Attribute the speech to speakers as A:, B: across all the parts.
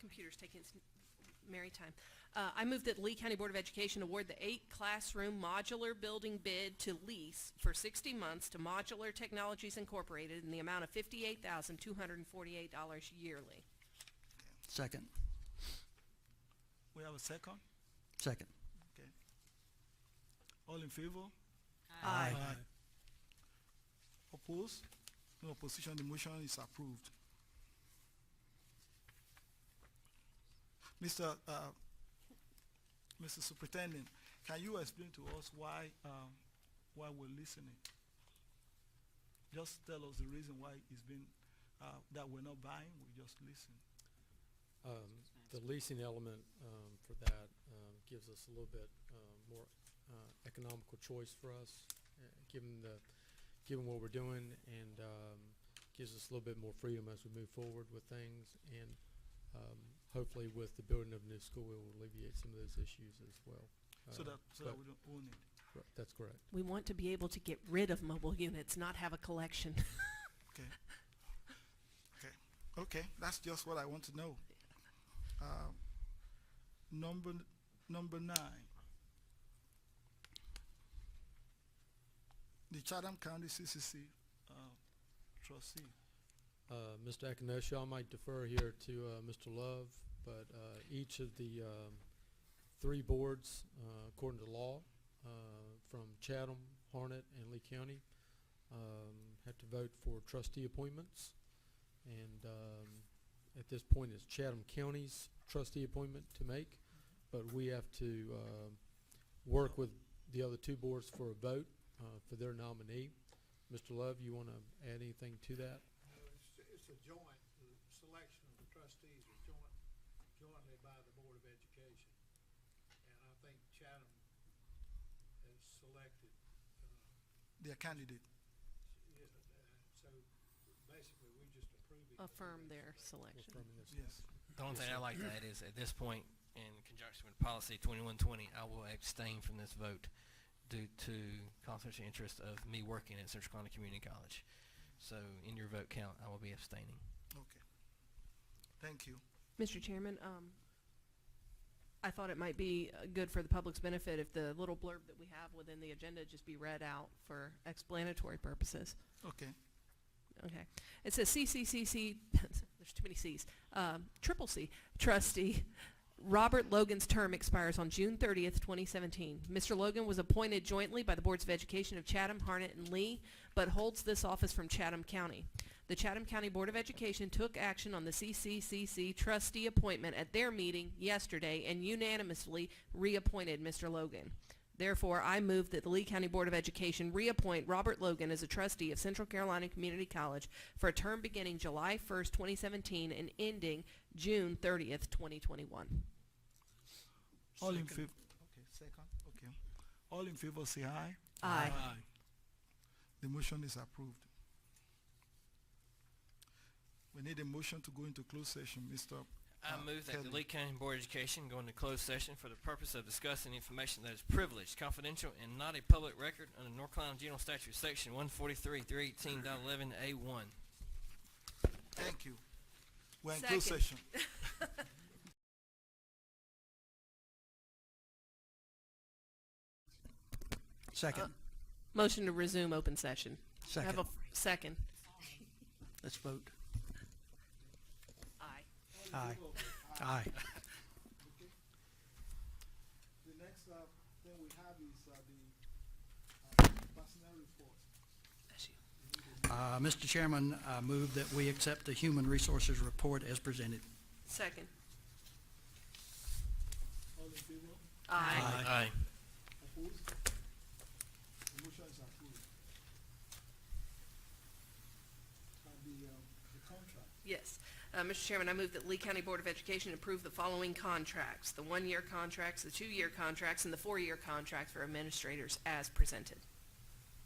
A: computer's taking its merry time. Uh, I move that Lee County Board of Education award the eight classroom modular building bid to lease for 60 months to Modular Technologies Incorporated in the amount of $58,248 yearly.
B: Second.
C: We have a second?
B: Second.
C: Okay. All in favor?
B: Aye.
C: Oppose? No opposition, the motion is approved. Mr. uh, Mr. Superintendent, can you explain to us why, um, why we're listening? Just tell us the reason why it's been, uh, that we're not buying, we just listen.
D: Um, the leasing element, um, for that, um, gives us a little bit, um, more, uh, economical choice for us, uh, given the, given what we're doing, and, um, gives us a little bit more freedom as we move forward with things, and, um, hopefully with the building of new school, it will alleviate some of those issues as well.
C: So
D: Uh,
C: that, so that
D: but-
C: we don't own it.
D: right, That's correct.
A: We want to be able to get rid of mobile units, not have a collection.
C: Okay. Okay. Okay. That's just what I want to know. Um, number number nine. The Chatham County CCC uh, trustee.
D: Uh, Mr. Akinosha, I might defer here to uh, Mr. Love, but uh, each of the um, three boards, uh, according to law, uh, from Chatham, Harnett, and Lee County, um, have to vote for trustee appointments. And um, at this point, it's Chatham County's trustee appointment to make, but we have to um, work with the other two boards for a vote uh, for their nominee. Mr. Love, you want to add anything to that?
E: No, it's, it's a joint, the selection of the trustees is joint, jointly by the Board of Education. And I think Chatham has selected, uh,
C: Their candidate.
E: s- yeah, uh, so basically, we just approving. what
A: Affirm
E: they
A: their
E: select.
A: selection.
D: Affirming this.
C: Yes.
F: The only thing I like to add is, at this point, in conjunction with policy twenty-one twenty, I will abstain from this vote due to conflict of interest of me working at Central Carolina Community College. So in your vote count, I will be abstaining.
C: Okay. Thank you.
A: Mr. Chairman, um, I thought it might be uh, good for the public's benefit if the little blurb that we have within the agenda just be read out for explanatory purposes.
C: Okay.
A: Okay. It says CCCC, there's too many Cs, um, triple C, trustee. Robert Logan's term expires on June 30th, 2017. Mr. Logan was appointed jointly by the Boards of Education of Chatham, Harnett, and Lee, but holds this office from Chatham County. The Chatham County Board of Education took action on the CCCC trustee appointment at their meeting yesterday and unanimously reappointed Mr. Logan. Therefore, I move that the Lee County Board of Education reappoint Robert Logan as a trustee of Central Carolina Community College for a term beginning July 1st, 2017 and ending June 30th, 2021.
C: All in
E: Second.
C: favor. Okay. Second. Okay. All in favor say aye.
A: Aye.
C: The motion is approved. We need a motion to go into closed session, Mr.
F: I
C: Uh,
F: move that the
C: Kelly.
F: Lee County Board of Education go into closed session for the purpose of discussing information that is privileged, confidential, and not a public record under North Carolina General Statute, Section one forty-three, three eighteen A one.
C: Thank you. We're in closed
A: Second.
C: session.
B: Second.
A: Motion to resume open session. Have a
B: Second.
A: f- second.
B: Let's vote.
A: Aye.
B: Aye. Aye.
C: The next uh, thing we have is uh, the uh, personnel report.
B: Uh, Mr. Chairman, I move that we accept the Human Resources Report as presented.
A: Second.
C: All in favor?
A: Aye.
F: Aye.
C: Opposed? The motion is approved. And the, uh, the contract.
A: Yes. Uh, Mr. Chairman, I move that Lee County Board of Education approve the following contracts, the one-year contracts, the two-year contracts, and the four-year contracts for administrators as presented.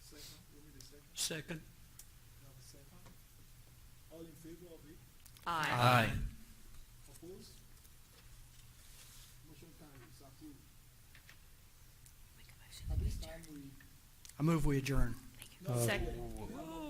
C: Second, we need a second.
B: Second.
C: We have a second. All in favor of it?
F: Aye.
C: Opposed? Motion carries, approved. At this time, we
B: I move we adjourn.
A: Uh, Second.